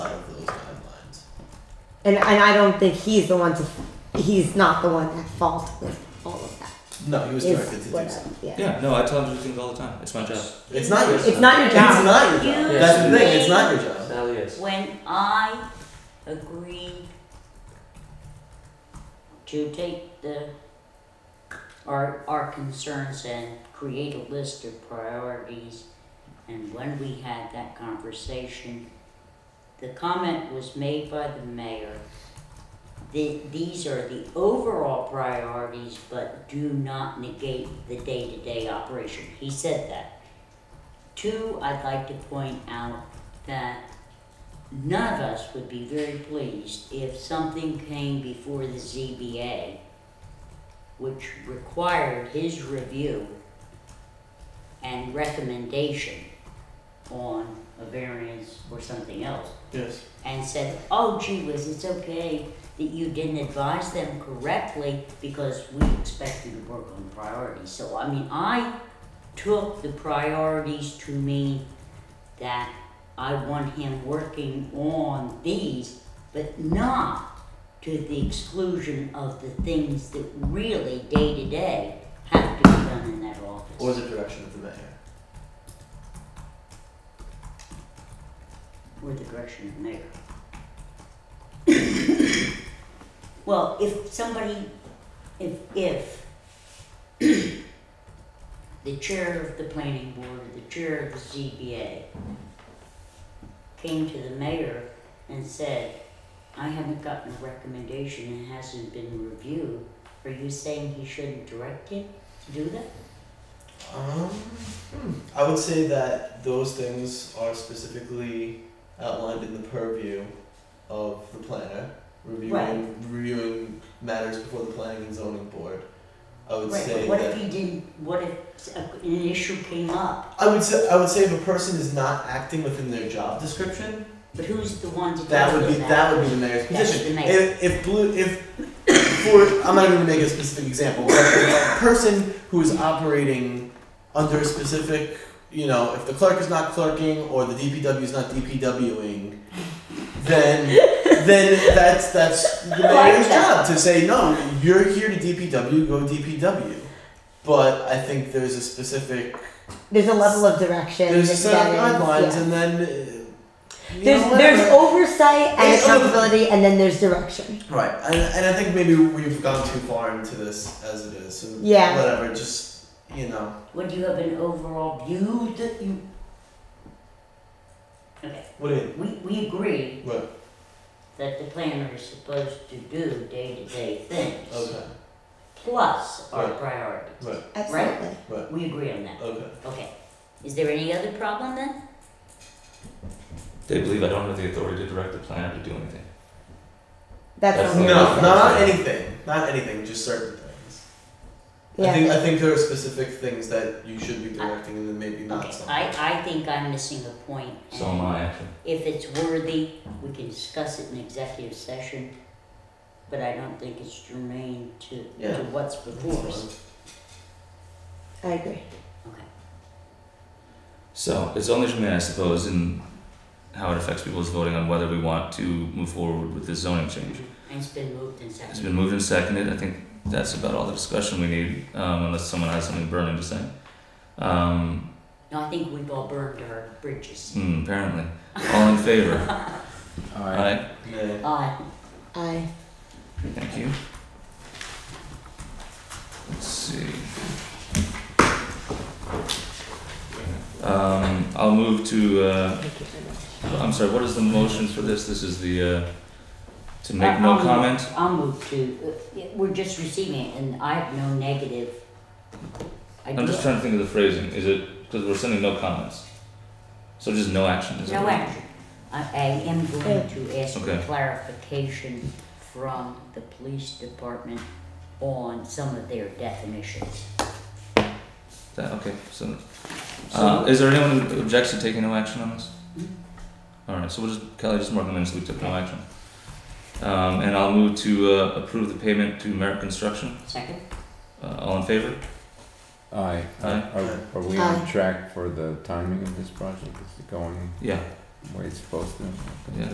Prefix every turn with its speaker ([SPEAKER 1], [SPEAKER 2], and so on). [SPEAKER 1] And, and I don't think he's the one to, he's not the one at fault with all of that.
[SPEAKER 2] No, he was
[SPEAKER 1] Is
[SPEAKER 2] directed to do
[SPEAKER 1] what I-
[SPEAKER 2] so.
[SPEAKER 1] yeah.
[SPEAKER 3] Yeah, no, I tell them to do things all the time. It's my job.
[SPEAKER 2] It's not your
[SPEAKER 1] It's not your
[SPEAKER 2] It's
[SPEAKER 1] job.
[SPEAKER 2] not your job.
[SPEAKER 4] You
[SPEAKER 2] That's the thing. It's
[SPEAKER 4] made-
[SPEAKER 2] not your job.
[SPEAKER 3] Sally is.
[SPEAKER 4] When I agreed to take the, our, our concerns and create a list of priorities, and when we had that conversation, the comment was made by the mayor, that these are the overall priorities, but do not negate the day-to-day operation. He said that. Two, I'd like to point out that None of us would be very pleased if something came before the ZBA which required his review and recommendation on a variance or something else
[SPEAKER 2] Yes.
[SPEAKER 4] and said, oh gee whiz, it's okay that you didn't advise them correctly because we expect you to work on priorities. So, I mean, I took the priorities to mean that I want him working on these, but not to the exclusion of the things that really day to day have to be done in that office.
[SPEAKER 2] Or the direction of the mayor.
[SPEAKER 4] or the direction of the mayor. Well, if somebody, if, if the chair of the planning board or the chair of the ZBA came to the mayor and said, I haven't gotten a recommendation, and hasn't been reviewed, are you saying he shouldn't direct him to do that?
[SPEAKER 2] Um, hmm. I would say that those things are specifically outlined in the purview of the planner, reviewing
[SPEAKER 4] Right.
[SPEAKER 2] reviewing matters before the planning and zoning board. I would
[SPEAKER 4] Right,
[SPEAKER 2] say
[SPEAKER 4] but what
[SPEAKER 2] that
[SPEAKER 4] if he didn't, what if uh, an issue came up,
[SPEAKER 2] I would say I would say if a person is not acting within their job description,
[SPEAKER 4] but who's the one to
[SPEAKER 2] that
[SPEAKER 4] deal
[SPEAKER 2] would be
[SPEAKER 4] with
[SPEAKER 2] that would be the mayor's
[SPEAKER 4] That should
[SPEAKER 2] position.
[SPEAKER 4] be mayor.
[SPEAKER 2] If if blue if for I'm not even gonna make a specific example, but if a person who is operating under a specific you know, if the clerk is not clerking or the DPW is not DPWing, then then that's that's the mayor's job to say no. You're here to DPW, go DPW. But I think there's a specific
[SPEAKER 1] There's a level of direction.
[SPEAKER 2] there's a
[SPEAKER 1] that
[SPEAKER 2] set of
[SPEAKER 1] that is-
[SPEAKER 2] guidelines,
[SPEAKER 1] yeah.
[SPEAKER 2] and then uh, you
[SPEAKER 1] There's,
[SPEAKER 2] know,
[SPEAKER 1] there's
[SPEAKER 2] whatever.
[SPEAKER 1] oversight and
[SPEAKER 2] There's over-
[SPEAKER 1] accountability, and then there's direction.
[SPEAKER 2] right, and, and I think maybe we've gone too far into this as it is. So
[SPEAKER 1] Yeah.
[SPEAKER 2] whatever, just you know,
[SPEAKER 4] Would you have an overall view that you? Okay,
[SPEAKER 2] what do you?
[SPEAKER 4] we, we agree
[SPEAKER 2] Right.
[SPEAKER 4] that the planner is supposed to do day-to-day things.
[SPEAKER 2] Okay.
[SPEAKER 4] Plus our
[SPEAKER 2] Right.
[SPEAKER 4] priorities.
[SPEAKER 2] Right.
[SPEAKER 4] Absolutely.
[SPEAKER 1] Right.
[SPEAKER 4] We agree on that.
[SPEAKER 2] Okay.
[SPEAKER 4] Okay. Is there any other problem then?
[SPEAKER 3] They believe I don't have the authority to direct the planner to do anything.
[SPEAKER 1] That's,
[SPEAKER 3] That's
[SPEAKER 1] what
[SPEAKER 3] the-
[SPEAKER 1] we
[SPEAKER 2] No,
[SPEAKER 1] said.
[SPEAKER 2] not anything. Not anything. Just certain things. I
[SPEAKER 1] Yeah.
[SPEAKER 2] think I think there are specific things that you should be directing, and then maybe not
[SPEAKER 4] Okay,
[SPEAKER 2] some.
[SPEAKER 4] I, I think I'm missing a point.
[SPEAKER 3] So am I, actually.
[SPEAKER 4] If it's worthy, we can discuss it in executive session, but I don't think it's germane to,
[SPEAKER 2] Yeah.
[SPEAKER 4] to what's before us.
[SPEAKER 1] I agree.
[SPEAKER 4] Okay.
[SPEAKER 3] So it's only germane, I suppose, in how it affects people's voting on whether we want to move forward with this zoning change.
[SPEAKER 4] And it's been moved and
[SPEAKER 3] It's
[SPEAKER 4] seconded.
[SPEAKER 3] been moved and seconded. I think that's about all the discussion we need, um, unless someone has something burning to say. Um,
[SPEAKER 4] No, I think we've all burned our bridges.
[SPEAKER 3] hmm, apparently, all in favor. Aye.
[SPEAKER 2] Yeah.
[SPEAKER 4] Uh,
[SPEAKER 1] I
[SPEAKER 3] Thank you. Let's see. Um, I'll move to. Uh,
[SPEAKER 1] thank you very much.
[SPEAKER 3] I'm sorry, what is the motion for this? This is the, uh, to make
[SPEAKER 4] I'll
[SPEAKER 3] no
[SPEAKER 4] move-
[SPEAKER 3] comment?
[SPEAKER 4] I'll move to, uh, we're just receiving it and I have no negative. I
[SPEAKER 3] I'm just
[SPEAKER 4] do-
[SPEAKER 3] trying to think of the phrasing. Is it, because we're sending no comments. So just no action, is that
[SPEAKER 4] No
[SPEAKER 3] right?
[SPEAKER 4] action. I, I am going to ask for
[SPEAKER 3] Okay.
[SPEAKER 4] clarification from the police department on some of their definitions.
[SPEAKER 3] That, okay, so, uh,
[SPEAKER 2] So-
[SPEAKER 3] is there anyone who objects to taking no action on this? Alright, so we'll just, Kelly, just mark them in as we took no action. Um, and I'll move to, uh, approve the payment to Merrick Construction.
[SPEAKER 4] Second?
[SPEAKER 3] Uh, all in favor?
[SPEAKER 5] Aye.
[SPEAKER 3] Aye.
[SPEAKER 5] Are, are we on
[SPEAKER 1] Aye.
[SPEAKER 5] track for the timing of this project? Is it going
[SPEAKER 3] Yeah,
[SPEAKER 5] the way it's supposed to?
[SPEAKER 3] yeah.